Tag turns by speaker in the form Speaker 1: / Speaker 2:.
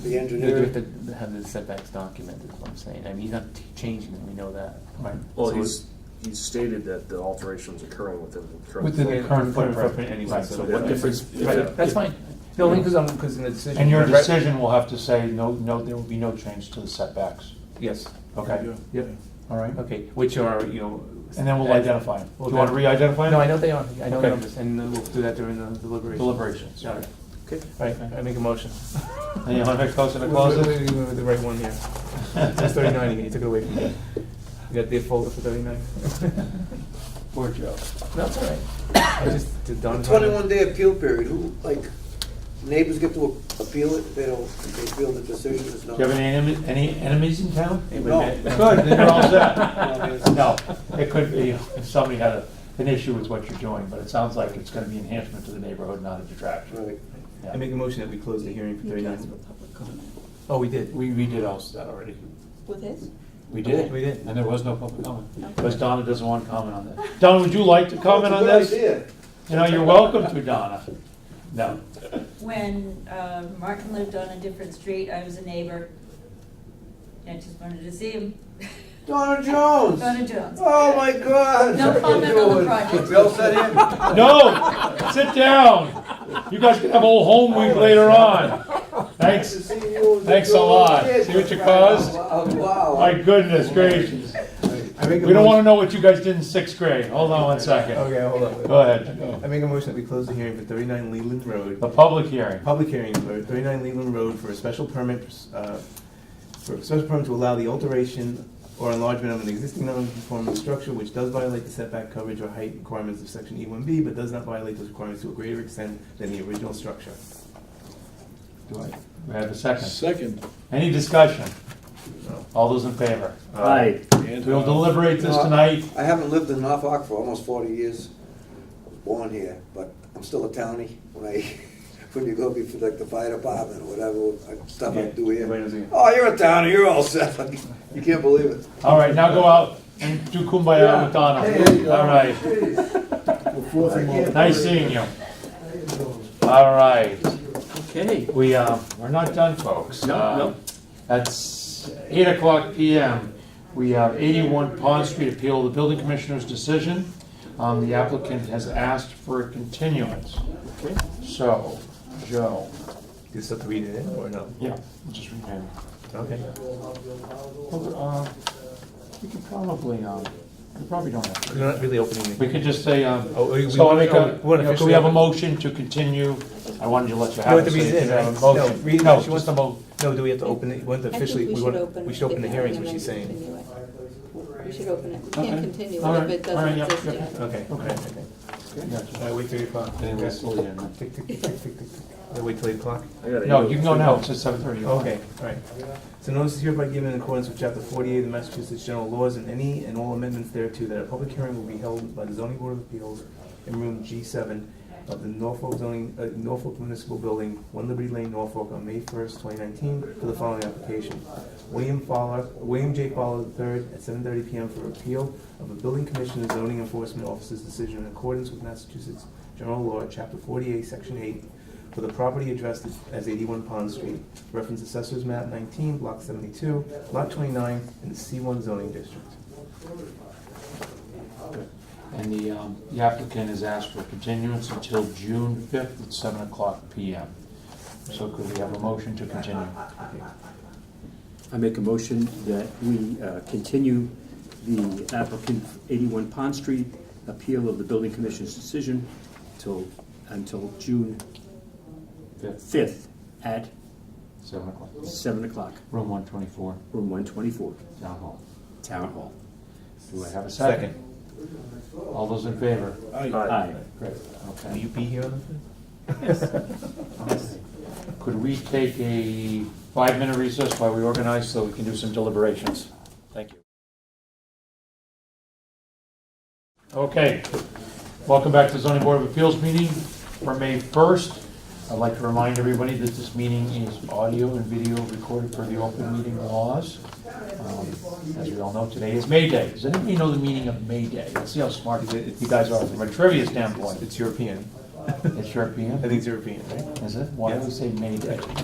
Speaker 1: The
Speaker 2: You do have
Speaker 1: engineer,
Speaker 2: to have the setbacks documented, is what I'm saying. I mean, he's not t- changing them, we know that. Right.
Speaker 3: Well,
Speaker 2: So
Speaker 3: he's, he's stated that the alteration's occurring within the current.
Speaker 4: Within
Speaker 2: the
Speaker 4: the
Speaker 3: footprint.
Speaker 2: current
Speaker 4: current
Speaker 2: footprint
Speaker 4: footprint
Speaker 2: anyway, so
Speaker 3: What
Speaker 2: what
Speaker 3: difference-
Speaker 2: Right, That's fine.
Speaker 4: No, only because I'm, because in the decision.
Speaker 5: And your
Speaker 4: Right.
Speaker 5: decision will have to say, no, no, there will be no change to the setbacks,
Speaker 4: Yes,
Speaker 5: okay?
Speaker 4: yep,
Speaker 5: All right?
Speaker 2: Okay, which are, you know.
Speaker 5: And then we'll identify them. Do you want to re-identify them?
Speaker 2: No, I know they are, I know they are,
Speaker 5: Okay.
Speaker 2: and then we'll do that during the deliberation.
Speaker 5: Deliberations.
Speaker 2: All right,
Speaker 3: Okay.
Speaker 2: All right, I make a motion.
Speaker 5: And you want to close it
Speaker 4: Wait,
Speaker 5: or
Speaker 4: wait,
Speaker 5: close
Speaker 4: wait,
Speaker 5: it?
Speaker 4: wait, wait, wait, the right one here. It's thirty-nine, again, you took it away from me. You got the folder for thirty-nine?
Speaker 5: Poor Joe.
Speaker 2: No, it's all right.
Speaker 4: I just did Don.
Speaker 1: twenty-one day appeal period, who, like, neighbors get to appeal it, they don't, they feel the decision is
Speaker 5: Do
Speaker 1: not.
Speaker 5: you have any enem- any enemies in town?
Speaker 1: No.
Speaker 5: Good, then you're all set.
Speaker 1: No, it's-
Speaker 5: No, it could be, if somebody had a- an issue with what you're doing, but it sounds like it's going to be enhancement to the neighborhood, not a detraction.
Speaker 1: Right.
Speaker 5: Yeah.
Speaker 4: I make a motion that we close the hearing for thirty-nine. Oh, we did.
Speaker 5: We, we did all that already.
Speaker 6: With his?
Speaker 5: We
Speaker 4: We did.
Speaker 5: And there was no public comment.
Speaker 6: Okay.
Speaker 5: Because Donna doesn't want to comment on that. Donna, would you like to comment on
Speaker 1: It's a
Speaker 5: this?
Speaker 1: good idea.
Speaker 5: You know, you're welcome to, Donna. No.
Speaker 6: When uh, Martin lived on a different street, I was a neighbor. I just wanted to see him.
Speaker 1: Donna Jones!
Speaker 6: Donna Jones.
Speaker 1: Oh, my God!
Speaker 6: No comment on the project.
Speaker 1: We all set in?
Speaker 5: No, sit down. You guys can have old home week later on.
Speaker 1: Nice to
Speaker 5: Thanks.
Speaker 1: see you.
Speaker 5: Thanks a lot. See what you caused?
Speaker 1: Wow, wow.
Speaker 5: My goodness gracious.
Speaker 4: I make a
Speaker 5: We don't want to
Speaker 4: motion-
Speaker 5: know what you guys did in sixth grade. Hold on one second.
Speaker 4: Okay, hold on.
Speaker 5: Go ahead.
Speaker 4: I make a motion that we close the hearing for thirty-nine Leland Road.
Speaker 5: The public hearing.
Speaker 4: Public hearing for 39 Leland Road for a special permit, uh, for a special permit to allow the alteration or enlargement of an existing non-conforming structure which does violate the setback coverage or height requirements of section E1B, but does not violate those requirements to a greater extent than the original structure.
Speaker 5: Do I, we have a second?
Speaker 7: Second.
Speaker 5: Any discussion? All those in favor?
Speaker 3: Aye.
Speaker 5: We'll deliberate this tonight.
Speaker 1: Uh, I haven't lived in Norfolk for almost forty years. I was Born here, but I'm still a townie. When I, when you go before like the fire department or whatever, I- stuff I do here. Oh, you're a townie, you're all set. You can't believe it.
Speaker 5: All right, now go out and do kumbaya with Donna. All right. Nice seeing you. All right.
Speaker 3: Okay.
Speaker 5: We, uh, we're not done, folks.
Speaker 3: No, no.
Speaker 5: Uh, That's eight o'clock PM. We have eighty-one Pond Street appeal, the building commissioner's decision. Um, the applicant has asked for a continuance. So, Joe.
Speaker 4: Do you still have to read it in or no?
Speaker 5: Yeah. Just remember.
Speaker 4: Okay.
Speaker 5: Uh, We could probably, um, we probably don't have to.
Speaker 4: We're not really opening
Speaker 5: We
Speaker 4: the.
Speaker 5: could just say, um,
Speaker 4: Oh, we-
Speaker 5: so I
Speaker 4: we-
Speaker 5: make
Speaker 4: oh,
Speaker 5: a,
Speaker 4: we wanna
Speaker 5: you know, could we have a
Speaker 4: officially-
Speaker 5: motion to continue? I wanted to let you have
Speaker 4: No,
Speaker 5: it.
Speaker 4: the
Speaker 5: so you
Speaker 4: reason
Speaker 5: could
Speaker 4: is,
Speaker 5: have a
Speaker 4: no,
Speaker 5: motion.
Speaker 4: reason-
Speaker 5: No,
Speaker 4: she
Speaker 5: just
Speaker 4: wants-
Speaker 5: a mo,
Speaker 4: No, do we have to open it, we want to
Speaker 8: I think
Speaker 4: officially,
Speaker 8: we
Speaker 4: we
Speaker 8: should
Speaker 4: want,
Speaker 8: open.
Speaker 4: we should open the hearings, what she's saying.
Speaker 8: We should open it. We
Speaker 5: Okay.
Speaker 8: can't continue
Speaker 5: All
Speaker 8: it if
Speaker 5: right. All
Speaker 8: it
Speaker 5: right,
Speaker 8: doesn't
Speaker 5: yep,
Speaker 8: exist
Speaker 5: yep.
Speaker 8: yet.
Speaker 4: Okay, okay, okay.
Speaker 5: Gotcha.
Speaker 4: I wait till eight o'clock.
Speaker 5: Then we'll slow down.
Speaker 4: Tick, tick, tick, tick, tick, tick. I wait till eight o'clock?
Speaker 3: I gotta
Speaker 5: no,
Speaker 3: go.
Speaker 5: you can go now, it's at seven thirty.
Speaker 4: Okay, all right. So notice is hereby given in accordance with chapter forty-eight of the Massachusetts General Laws and any and all amendments thereto, that a public hearing will be held by the zoning board of appeals in room G seven of the Norfolk zoning, uh, Norfolk Municipal Building, One Liberty Lane, Norfolk, on May first, twenty nineteen, for the following application. William Fowler, William J. Fowler III at seven thirty PM for appeal of a building commissioner zoning enforcement officer's decision in accordance with Massachusetts General Law, chapter forty-eight, section eight, for the property addressed as 81 Pond Street, reference assessors map 19, block 72, lot 29, in the C1 zoning district.
Speaker 5: And the, um, the applicant has asked for continuance until June fifth at seven o'clock PM. So could we have a motion to continue?
Speaker 9: I make a motion that we uh, continue the applicant 81 Pond Street appeal of the building commission's decision till, until June
Speaker 5: Fifth,
Speaker 9: 5th at
Speaker 5: seven o'clock,
Speaker 9: 7 o'clock,
Speaker 5: room one twenty-four,
Speaker 9: room 124,
Speaker 5: down hall.
Speaker 9: Town Hall.
Speaker 5: Do I have a second? All those in favor?
Speaker 9: Aye.
Speaker 5: Great. Okay.
Speaker 4: Will you be here on the 5th?
Speaker 5: Could we take a five-minute recess while we organize so we can do some deliberations? Thank you. Okay, welcome back to zoning board of appeals meeting for May 1st. I'd like to remind everybody that this meeting is audio and video recorded for the open meeting laws. Um, As we all know, today is May Day. Does anybody know the meaning of May Day? Let's see how smart you guys are from a trivia standpoint.
Speaker 4: It's European.
Speaker 5: It's European?
Speaker 4: I think it's European, right?
Speaker 5: Is it? Why do we say May Day?